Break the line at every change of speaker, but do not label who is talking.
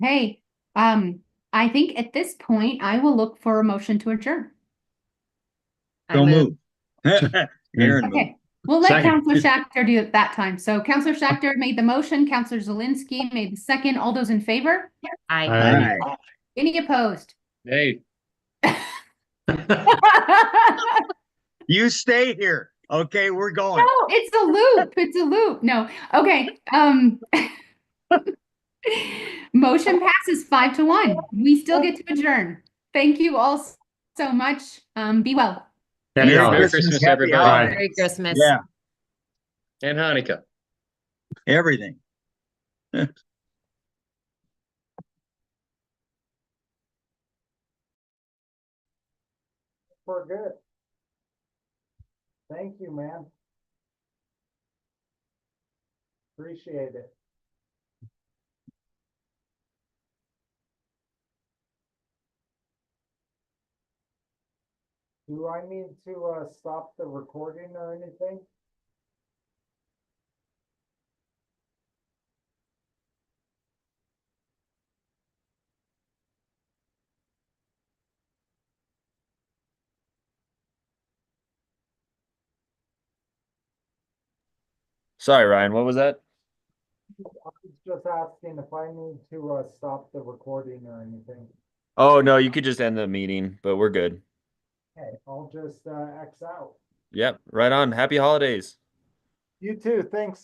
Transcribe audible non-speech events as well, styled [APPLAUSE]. Hey, um, I think at this point, I will look for a motion to adjourn.
I
Don't
move.
move.
[LAUGHS]
Aaron moved.
Okay, we'll let
Second.
Counselor Shachter do it that time. So Counselor Shachter made the motion, Counselor Zelinski made the second. All those in favor?
I,
Aye.
Aye.
Any opposed? [LAUGHS]
Hey,
You stay here. Okay, we're going.
No, it's a loop. It's a loop. No. Okay, um. [LAUGHS] Motion passes five to one. We still get to adjourn. Thank you all s- so much. Um, be well.
Merry
Yeah.
Christmas, everybody.
holidays.
Merry Christmas.
Yeah,
and Hanukkah.
everything.
We're good. Thank you, man. Appreciate it. Do I need to, uh, stop the recording or anything?
Sorry, Ryan, what was that?
I was just asking if I need to, uh, stop the recording or anything.
Oh, no, you could just end the meeting, but we're good.
Okay, I'll just, uh, X out.
Yep, right on. Happy holidays.
You too, thanks.